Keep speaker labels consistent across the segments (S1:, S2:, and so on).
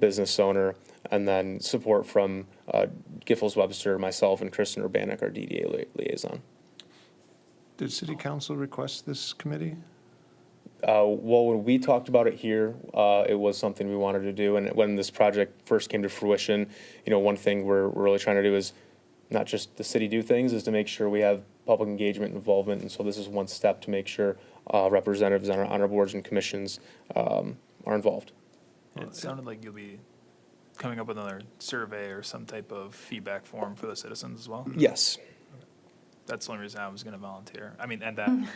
S1: business owner, and then support from uh, Giffords Webster, myself, and Kristen Urbanek, our DDA lia- liaison.
S2: Did city council request this committee?
S1: Uh, well, when we talked about it here, uh, it was something we wanted to do, and when this project first came to fruition, you know, one thing we're, we're really trying to do is not just the city do things, is to make sure we have public engagement and involvement, and so this is one step to make sure uh, representatives on our, on our boards and commissions um, are involved.
S3: It sounded like you'll be coming up with another survey or some type of feedback form for the citizens as well.
S1: Yes.
S3: That's the only reason I was gonna volunteer. I mean, and that, I'm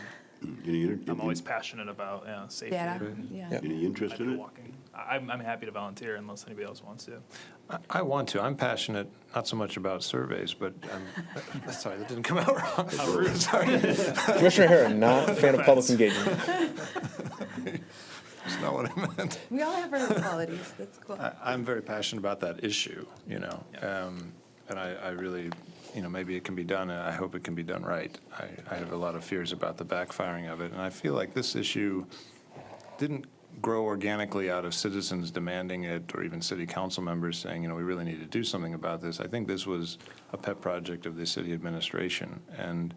S4: Any, inter- any-
S3: always passionate about, yeah, safety.
S5: Data,
S3: and
S5: yeah.
S1: Yep.
S4: any
S3: I
S4: interest
S3: do
S4: in it?
S3: walking. I- I'm, I'm happy to volunteer unless anybody else wants to.
S2: I, I want to. I'm passionate, not so much about surveys, but I'm, sorry, that didn't come out wrong.
S1: Commissioner Herron, not a fan of public engagement.
S2: That's not what I meant.
S5: We all have our qualities, that's cool.
S2: I, I'm very passionate about that issue, you know?
S3: Yeah.
S2: um, And I, I really, you know, maybe it can be done, and I hope it can be done right. I, I have a lot of fears about the backfiring of it, and I feel like this issue didn't grow organically out of citizens demanding it, or even city council members saying, you know, we really need to do something about this. I think this was a pet project of the city administration, and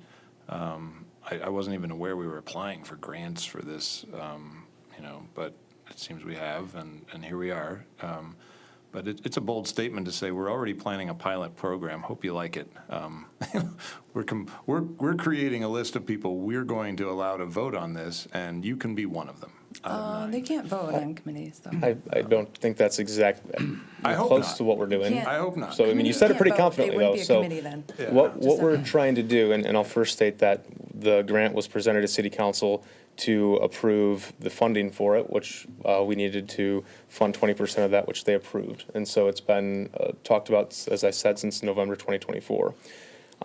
S2: um, I, I wasn't even aware we were applying for grants for this, um, you know, but it seems we have, and, and here we are. Um, But it, it's a bold statement to say, we're already planning a pilot program, hope you like it. Um, We're, com- we're, we're creating a list of people we're going to allow to vote on this, and you can be one of them. Um, out of
S5: Uh,
S2: nine.
S5: They can't vote on committees, though.
S1: I, I don't think that's exact,
S2: I hope
S1: close
S2: not.
S1: to what we're doing.
S5: Can't.
S2: I hope not.
S1: So, I mean, you
S5: Committees
S1: said it
S5: can't
S1: pretty
S5: vote. They
S1: confidently,
S5: wouldn't
S1: though,
S5: be a
S1: so.
S5: committee then.
S2: Yeah.
S1: What,
S5: Just
S1: what we're
S5: that.
S1: trying to do, and, and I'll first state that the grant was presented to city council to approve the funding for it, which, uh, we needed to fund twenty percent of that, which they approved. And so it's been, uh, talked about, as I said, since November twenty twenty-four.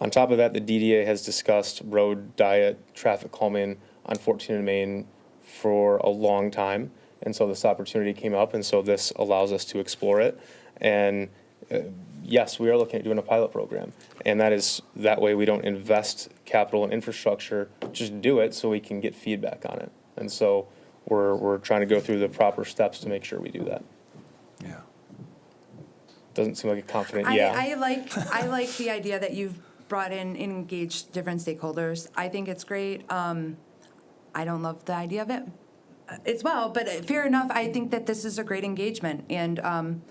S1: On top of that, the DDA has discussed road diet, traffic calming on fourteen and Main for a long time. And so this opportunity came up, and so this allows us to explore it. And yes, we are looking at doing a pilot program. And that is, that way we don't invest capital and infrastructure, just do it so we can get feedback on it. And so we're, we're trying to go through the proper steps to make sure we do that.
S2: Yeah.
S1: Doesn't seem like a confident,
S5: I,
S1: yeah.
S5: I like, I like the idea that you've brought in, and engaged different stakeholders. I think it's great. Um, I don't love the idea of it uh, as well, but uh, fair enough. I think that this is a great engagement, and, um,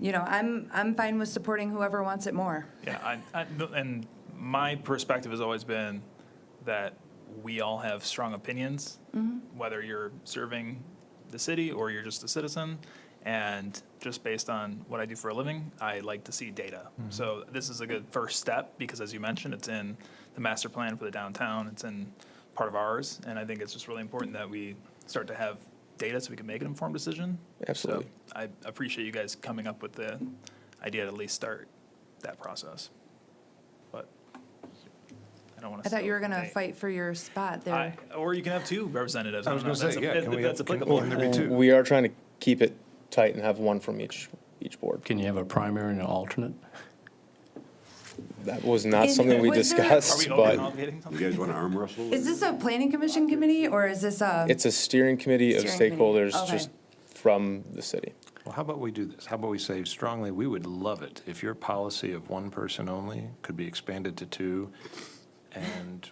S5: you know, I'm, I'm fine with supporting whoever wants it more.
S3: Yeah, I, I, no, and my perspective has always been that we all have strong opinions, whether you're serving the city or you're just a citizen. And just based on what I do for a living, I like to see data. So this is a good first step because, as you mentioned, it's in the master plan for the downtown. It's in part of ours, and I think it's just really important that we start to have data so we can make an informed decision.
S1: Absolutely.
S3: So I appreciate you guys coming up with the idea to at least start that process. But I don't want to.
S5: I thought you were gonna fight for your spot there.
S3: Or you can have two representatives.
S2: I was
S3: don't know
S2: gonna
S3: if
S2: say,
S3: that's
S2: yeah,
S3: a-
S2: can
S3: if
S2: we
S3: That's
S2: have- can-
S3: applicable.
S2: can there be two?
S1: We are trying to keep it tight and have one from each, each board.
S6: Can you have a primary and an alternate?
S1: That was not
S5: Is-
S1: something we
S5: was there-
S3: Are we
S1: discussed, but
S3: overcomplicating
S4: You
S3: something?
S4: guys want to arm wrestle?
S5: Is this a planning commission committee, or is this a?
S1: it's a steering committee of
S5: Steering committee,
S1: stakeholders
S5: okay.
S1: just from the city.
S2: Well, how about we do this? How about we say strongly, we would love it if your policy of one person only could be expanded to two and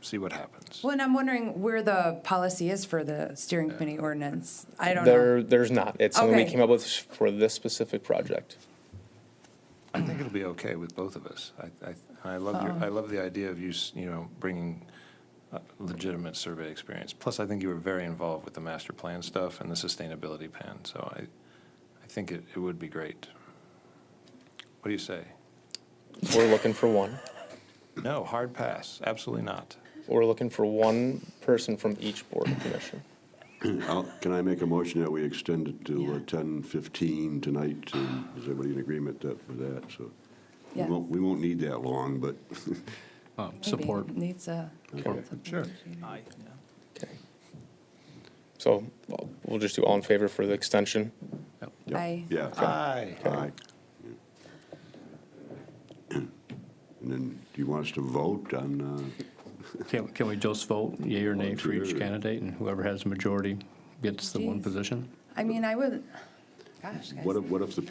S2: see what happens.
S5: Well, and I'm wondering where the policy is for the steering committee ordinance. I don't know.
S1: There, there's not. It's something we
S5: Okay.
S1: came up with for this specific project.
S2: I think it'll be okay with both of us. I, I, I love your, I love the idea of you, s- you know, bringing uh, legitimate survey experience. Plus, I think you were very involved with the master plan stuff and the sustainability plan, so I, I think it, it would be great. What do you say?
S1: We're looking for one.
S2: No, hard pass, absolutely not.
S1: We're looking for one person from each board and commission.
S4: I'll- Can I make a motion that we extend it to uh, ten fifteen tonight? and Is everybody in agreement that- with that? So we
S5: Yeah.
S4: won't, we won't need that long, but
S6: Oh,
S5: Maybe
S6: Support.
S5: it Needs a.
S4: Okay.
S2: Sure.
S3: Aye, yeah.
S1: Okay. So well, we'll just do all in favor for the extension.
S4: Yep.
S5: Aye.
S4: yeah.
S2: Aye.
S4: Aye. And then, do you want us to vote on, uh,
S6: Can, can we just vote yea or nay for each
S4: Sure.
S6: candidate, and whoever has a majority gets the one
S5: Jeez.
S6: position?
S5: I mean, I would, gosh, guys.
S4: What if, what if the